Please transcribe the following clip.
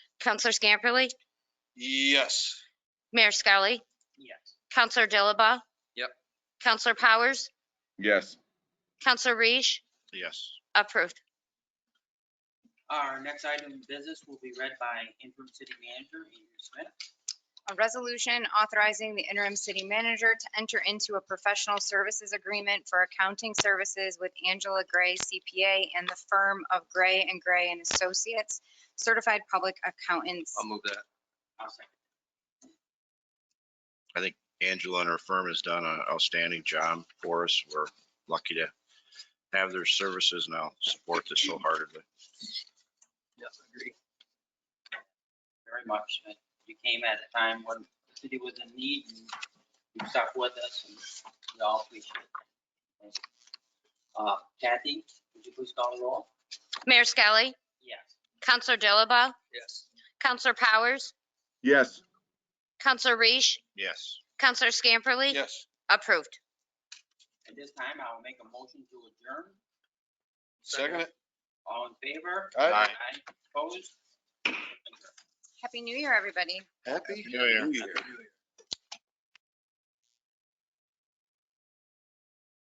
Counselor Scamperly, Yes. Mayor Scully, Yes. Counselor Dilaba. Yep. Counselor Powers, Yes. Counselor Reish, Yes. approved. Our next item of business will be read by interim city manager Andrew Smith. A resolution authorizing the interim city manager to enter into a professional services agreement for accounting services with Angela Gray CPA and the firm of Gray and Gray and Associates, certified public accountants. I'll move that. I'll second. Angela and her firm has done an outstanding job for us. We're lucky to have their services and I'll support this wholeheartedly. Yes, I agree. very much. And You came at a time when the city was in need and you stuck with us and we all appreciate it. Uh, Kathy, would you please call the roll? Mayor Scully, Yes. Counselor Dilaba, Yes. Counselor Powers, Yes. Counselor Reish, Yes. Counselor Scamperly, Yes. approved. At this time, I will make a motion to adjourn. Second it. All in favor? Aye. Aye. Opposed? Happy New Year, everybody. Happy New Year. New Year.